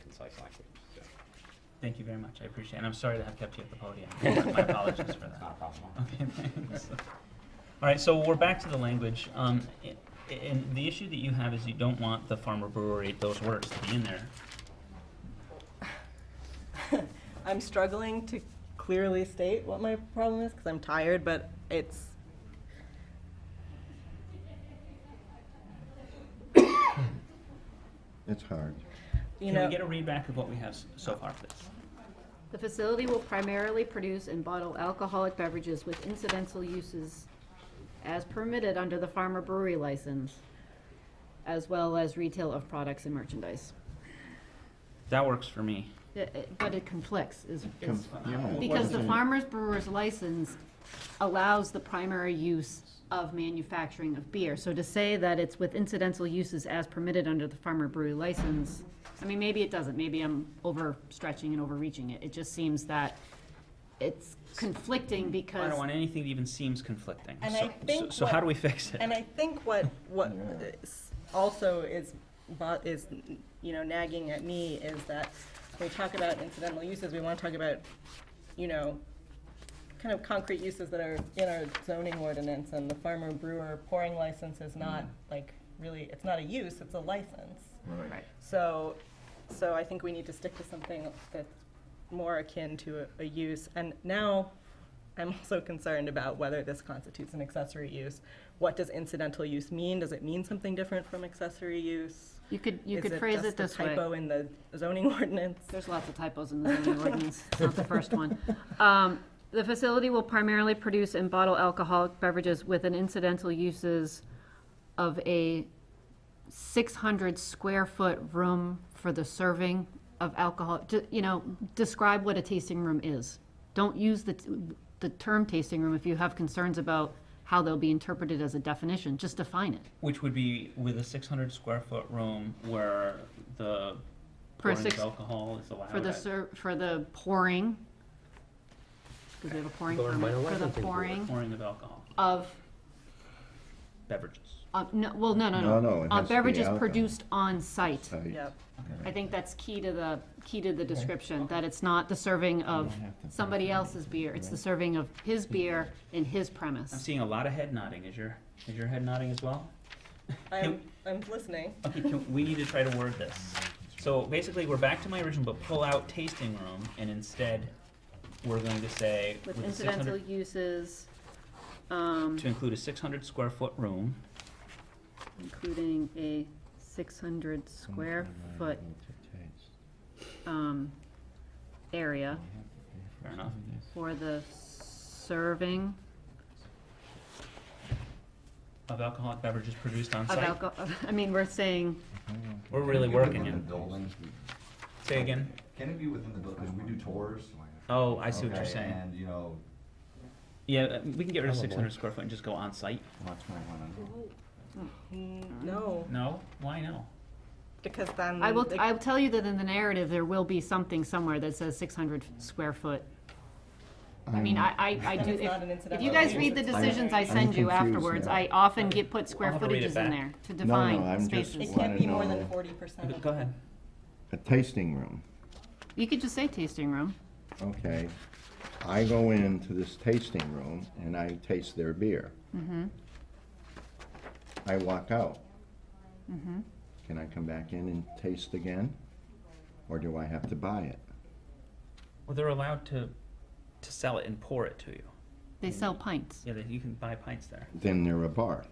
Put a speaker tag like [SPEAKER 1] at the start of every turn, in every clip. [SPEAKER 1] concise language, so.
[SPEAKER 2] Thank you very much, I appreciate it, and I'm sorry to have kept you at the podium. My apologies for that.
[SPEAKER 1] It's not a problem.
[SPEAKER 2] Okay, thanks. All right, so we're back to the language. Um, i- And the issue that you have is you don't want the farmer brewery, those words to be in there.
[SPEAKER 3] I'm struggling to clearly state what my problem is because I'm tired, but it's.
[SPEAKER 4] It's hard.
[SPEAKER 3] You
[SPEAKER 2] Can
[SPEAKER 3] know,
[SPEAKER 2] we get a read back of what we have s- so far, please?
[SPEAKER 5] The facility will primarily produce and bottle alcoholic beverages with incidental uses as permitted under the farmer brewery license, as well as retail of products and merchandise.
[SPEAKER 2] That works for me.
[SPEAKER 5] It- it- But it conflicts, is, is,
[SPEAKER 4] Com- yeah, it
[SPEAKER 5] because the
[SPEAKER 4] wasn't-
[SPEAKER 5] farmer's brewer's license allows the primary use of manufacturing of beer. So to say that it's with incidental uses as permitted under the farmer brewery license, I mean, maybe it doesn't, maybe I'm overstretching and overreaching it. It just seems that it's conflicting
[SPEAKER 2] I
[SPEAKER 5] because,
[SPEAKER 2] don't want anything that even seems conflicting.
[SPEAKER 3] And
[SPEAKER 2] So-
[SPEAKER 3] I think
[SPEAKER 2] So so how
[SPEAKER 3] what-
[SPEAKER 2] do we fix it?
[SPEAKER 3] and I think what what
[SPEAKER 4] Yeah.
[SPEAKER 3] is also is bo- is you know nagging at me is that when we talk about incidental uses, we want to talk about you know kind of concrete uses that are in our zoning ordinance, and the farmer brewer pouring license is
[SPEAKER 2] Mm.
[SPEAKER 3] not like really it's not a use, it's a license.
[SPEAKER 4] Right.
[SPEAKER 5] right,
[SPEAKER 3] So, so I think we need to stick to something that's more akin to a, a use. And now, I'm also concerned about whether this constitutes an accessory use. What does incidental use mean? Does it mean something different from accessory use?
[SPEAKER 5] you could, you
[SPEAKER 3] Is
[SPEAKER 5] could phrase
[SPEAKER 3] just
[SPEAKER 5] it
[SPEAKER 3] a
[SPEAKER 5] this way.
[SPEAKER 3] Typo in the zoning ordinance.
[SPEAKER 5] There's lots of typos in the zoning ordinance, It's not the first one. Um, the facility will primarily produce and bottle alcoholic beverages with an incidental uses of a six hundred square foot room for the serving of alcohol, Ju- you know, describe what a tasting room is. Don't use the, t- the term tasting room if you have concerns about how they'll be interpreted as a definition, just define it.
[SPEAKER 2] Which would be with a six hundred square foot room where the
[SPEAKER 5] For
[SPEAKER 2] pouring of
[SPEAKER 5] six-
[SPEAKER 2] alcohol is allowed.
[SPEAKER 5] For the
[SPEAKER 2] at-
[SPEAKER 5] ser, for the pouring, because we have a pouring
[SPEAKER 6] Going by the
[SPEAKER 5] permit, for the
[SPEAKER 6] licensing board.
[SPEAKER 5] pouring
[SPEAKER 2] Pouring of alcohol,
[SPEAKER 5] of,
[SPEAKER 2] beverages.
[SPEAKER 5] uh, no, well, no, no,
[SPEAKER 4] No,
[SPEAKER 5] no.
[SPEAKER 4] no, it
[SPEAKER 5] Uh,
[SPEAKER 4] has to be
[SPEAKER 5] Beverages
[SPEAKER 4] alcohol.
[SPEAKER 5] produced on site.
[SPEAKER 4] Tight.
[SPEAKER 3] Yep.
[SPEAKER 5] I think that's key to the, key to the description, that it's not the serving of
[SPEAKER 4] don't have to
[SPEAKER 5] somebody
[SPEAKER 4] pay for it.
[SPEAKER 5] else's beer, it's the serving of his beer in his
[SPEAKER 2] I'm
[SPEAKER 5] premise.
[SPEAKER 2] seeing a lot of head nodding. Is your, is your head nodding as well?
[SPEAKER 3] I'm, I'm listening.
[SPEAKER 2] Okay, can, we need to try to word this. So basically, we're back to my original, but pull out tasting room, and instead, we're going to say
[SPEAKER 5] With
[SPEAKER 2] with a
[SPEAKER 5] incidental
[SPEAKER 2] 600
[SPEAKER 5] uses, um,
[SPEAKER 2] to include a six hundred square foot room
[SPEAKER 5] including a six hundred square foot, um, area.
[SPEAKER 2] Fair enough.
[SPEAKER 5] for the serving
[SPEAKER 2] of alcoholic beverages produced on
[SPEAKER 5] of
[SPEAKER 2] site.
[SPEAKER 5] alcohol, I mean, we're saying,
[SPEAKER 2] We're really working
[SPEAKER 7] Within the
[SPEAKER 2] it.
[SPEAKER 7] building,
[SPEAKER 2] Say again.
[SPEAKER 7] can it be within the building, because we do tours.
[SPEAKER 2] Oh, I see what you're
[SPEAKER 7] okay,
[SPEAKER 2] saying.
[SPEAKER 7] And, you know,
[SPEAKER 2] Yeah, uh, we can get rid of
[SPEAKER 6] Probably.
[SPEAKER 2] six hundred square foot and just go on site.
[SPEAKER 7] lots might wanna,
[SPEAKER 3] Mm, No,
[SPEAKER 2] No, why no?
[SPEAKER 3] because then.
[SPEAKER 5] Mm-hmm. I will,
[SPEAKER 3] the-
[SPEAKER 5] I'll tell you that in the narrative, there will be something somewhere that says six hundred square foot. I mean, I, I, I
[SPEAKER 3] And
[SPEAKER 5] do,
[SPEAKER 3] it's not an
[SPEAKER 5] if, if you
[SPEAKER 3] incidental
[SPEAKER 5] guys
[SPEAKER 3] use,
[SPEAKER 5] read the
[SPEAKER 3] it's
[SPEAKER 5] decisions I
[SPEAKER 3] primary.
[SPEAKER 5] send you
[SPEAKER 4] confused
[SPEAKER 5] afterwards,
[SPEAKER 4] now.
[SPEAKER 5] I often get put square
[SPEAKER 2] I'll have to read it
[SPEAKER 5] footages in
[SPEAKER 2] back.
[SPEAKER 5] there to
[SPEAKER 4] No, no,
[SPEAKER 5] define
[SPEAKER 4] I'm just-
[SPEAKER 5] spaces.
[SPEAKER 3] It can't be more
[SPEAKER 4] Wanna
[SPEAKER 3] than
[SPEAKER 4] know-
[SPEAKER 3] forty percent of
[SPEAKER 2] Go ahead.
[SPEAKER 4] A tasting room,
[SPEAKER 5] You could just say tasting room,
[SPEAKER 4] okay. I go into this tasting room and I taste their beer.
[SPEAKER 5] Mm-hmm.
[SPEAKER 4] I walk out.
[SPEAKER 5] Mm-hmm.
[SPEAKER 4] Can I come back in and taste again? Or do I have to buy it?
[SPEAKER 2] Well, they're allowed to, to sell it and pour it to you.
[SPEAKER 5] they sell pints,
[SPEAKER 2] Yeah, they- you can buy pints there.
[SPEAKER 4] Then they're a bar.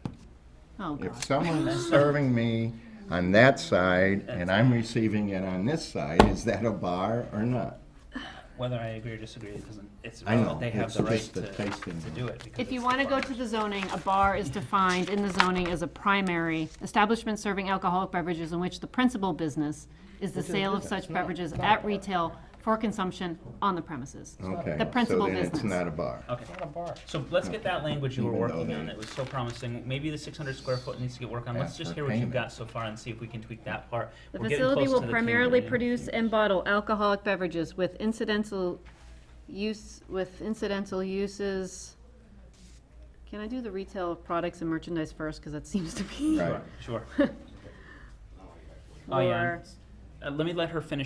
[SPEAKER 5] oh god.
[SPEAKER 4] If someone's serving me on that side and I'm receiving it on this side, is that a bar or not?
[SPEAKER 2] Whether I agree or disagree, it doesn't, it's,
[SPEAKER 4] I know,
[SPEAKER 2] they have
[SPEAKER 4] it's
[SPEAKER 2] the right
[SPEAKER 4] just the
[SPEAKER 2] to,
[SPEAKER 4] tasting
[SPEAKER 2] to
[SPEAKER 4] room.
[SPEAKER 2] do it. because
[SPEAKER 5] If you
[SPEAKER 2] it's
[SPEAKER 5] want to
[SPEAKER 2] the
[SPEAKER 5] go
[SPEAKER 2] bar.
[SPEAKER 5] to the zoning, a bar is defined in the zoning as a primary establishment serving alcoholic beverages in which the principal business is the sale of such beverages at retail for consumption on the premises.
[SPEAKER 4] Okay,
[SPEAKER 5] The
[SPEAKER 4] so
[SPEAKER 5] principal
[SPEAKER 4] then it's not
[SPEAKER 5] business.
[SPEAKER 4] a bar.
[SPEAKER 2] Okay. So let's get that language you were
[SPEAKER 4] Even though
[SPEAKER 2] working on,
[SPEAKER 4] they-
[SPEAKER 2] it was so promising, maybe the six hundred square foot needs to get work on, let's
[SPEAKER 4] Ask
[SPEAKER 2] just
[SPEAKER 4] for
[SPEAKER 2] hear what you've
[SPEAKER 4] payment.
[SPEAKER 2] got so far and see if we can tweak that part.
[SPEAKER 5] The
[SPEAKER 2] We're getting
[SPEAKER 5] facility
[SPEAKER 2] close
[SPEAKER 5] will
[SPEAKER 2] to the
[SPEAKER 5] primarily
[SPEAKER 2] community.
[SPEAKER 5] produce and bottle alcoholic beverages with incidental use, with incidental uses. Can I do the retail of products and merchandise first, because that seems to be
[SPEAKER 4] Right.
[SPEAKER 2] Sure, sure. Oh, yeah.
[SPEAKER 5] more.
[SPEAKER 2] Uh, let me let her finish